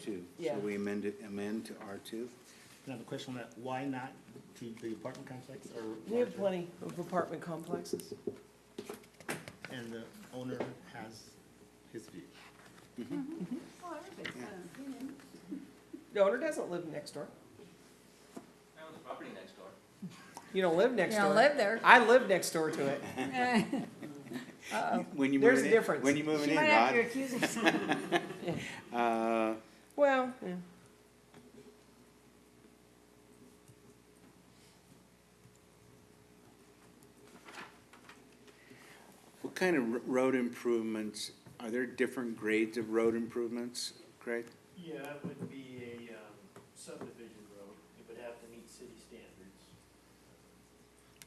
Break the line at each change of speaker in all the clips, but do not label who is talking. two.
Yeah.
So we amend it, amend to R two?
Can I have a question on that? Why not to the apartment complex or?
We have
larger?
plenty of apartment complexes.
And the owner has his view.
Well, everybody's got an opinion.
The owner doesn't live next door.
I own the property next door.
You don't live next
You
door.
don't live there.
I live next door to it.
When you
There's
moving
a
in-
difference.
When you moving
She
in,
might have to
Rod?
accuse herself.
Uh,
Well, yeah.
what kind of r- road improvements, are there different grades of road improvements, Craig?
Yeah, it would be a um, subdivision road. It would have to meet city standards.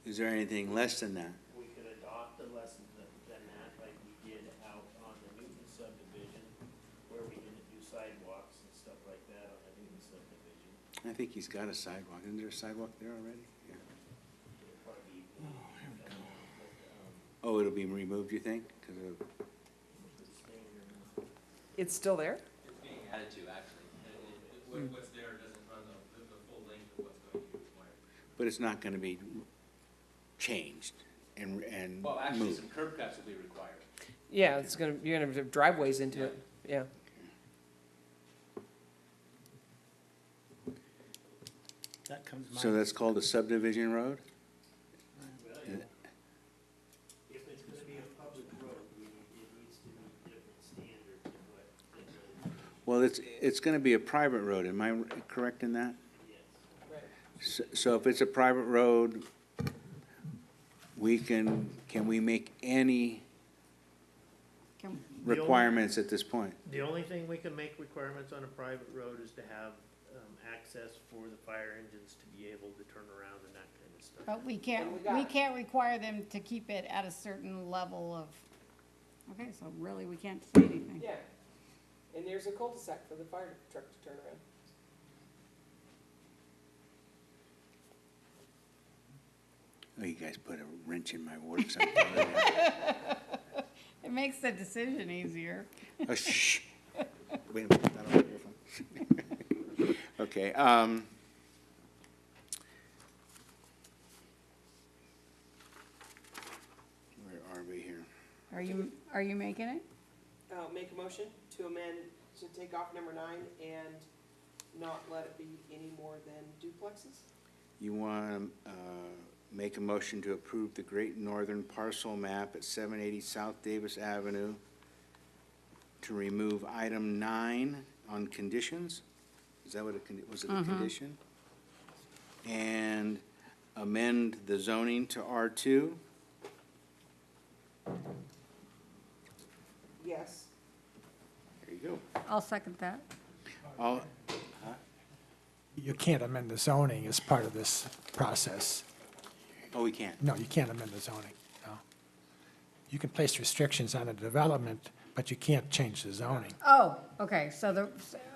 Is there anything less than that?
We could adopt a lesson tha- than that, like we did out on the Newton subdivision, where we didn't do sidewalks and stuff like that on the Newton subdivision.
I think he's got a sidewalk. Isn't there a sidewalk there already? Yeah.
It'd probably be. But, um,
Oh, it'll be removed, you think? 'Cause of-
the standard,
It's still there?
It's being added to, actually. And it- it- what- What's there doesn't run the, the the full length of what's going to be required.
but it's not gonna be changed and, and
Well, actually,
moved.
some curb cuts will be required.
Yeah, it's gonna, you're gonna have driveways into it, yeah.
That comes to mind.
So that's called a subdivision road?
well,
Yeah.
If it's gonna be a public road, we need, it needs to meet different standards than what, than the-
Well, it's, it's gonna be a private road. Am I correct in that?
yes.
S- So if it's a private road, we can, can we make any
Can-
requirements at this point?
The only thing we can make requirements on a private road is to have, um, access for the fire engines to be able to turn around and that kind of stuff.
But we can't, we can't require them to keep it at a certain level of, okay, so really, we can't say anything.
Yeah, and there's a cul-de-sac for the fire truck to turn around.
Oh, you guys put a wrench in my works. I'm telling you.
It makes the decision easier.
Oh, shh. Wait a minute, I don't have your phone. Okay, um. Where are we here?
Are you, are you making it?
Uh, make a motion to amend, to take off number nine and not let it be any more than duplexes?
You want to make a motion to approve the Great Northern parcel map at 780 South Davis Avenue to remove item nine on conditions? Is that what it, con- was it a
Mm-hmm.
condition? And amend the zoning to R2?
Yes.
There you
I'll second that.
go. All,
You can't amend the zoning as part of this process.
oh, we can't.
No, you can't amend the zoning, no. You can place restrictions on a development, but you can't change the zoning.
Oh, okay, so the,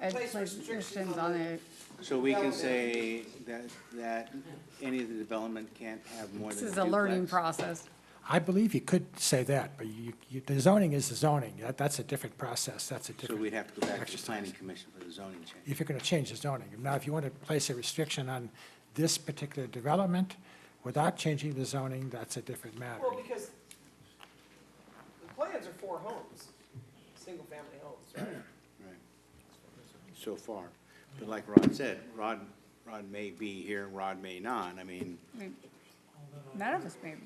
it
Place
places
restrictions
restrictions
on
on it.
So we can say that, that any of the development can't have more
This
than a
is a learning
duplex?
process.
I believe you could say that, but you, you, the zoning is the zoning. That, that's a different process, that's a
So
different.
we'd have to go back to the
exercise.
planning commission for the zoning change.
If you're gonna change the zoning. Now, if you want to place a restriction on this particular development without changing the zoning, that's a different matter.
Well, because the plans are four homes, single-family homes, right?
Right, so far. But like Rod said, Rod, Rod may be here, Rod may not. I mean,
We- None of us maybe.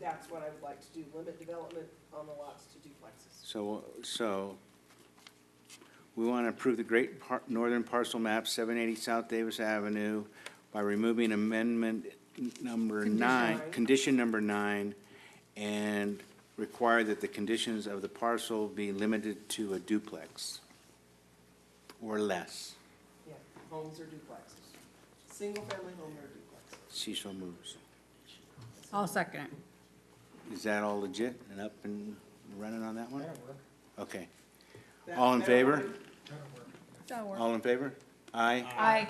That's what I would like to do, limit development on the lots to duplexes.
so, so we want to approve the Great Par- Northern Parcel Map, 780 South Davis Avenue, by removing amendment n- number nine,
Condition.
condition number nine, and require that the conditions of the parcel be limited to a duplex or less.
Yeah, homes or duplexes. Single-family home or duplex.
She so moves.
I'll second it.
Is that all legit and up and running on that one? Okay.
That-
All in
that'll
favor?
work.
That'll work.
All in favor? Aye.
Aye.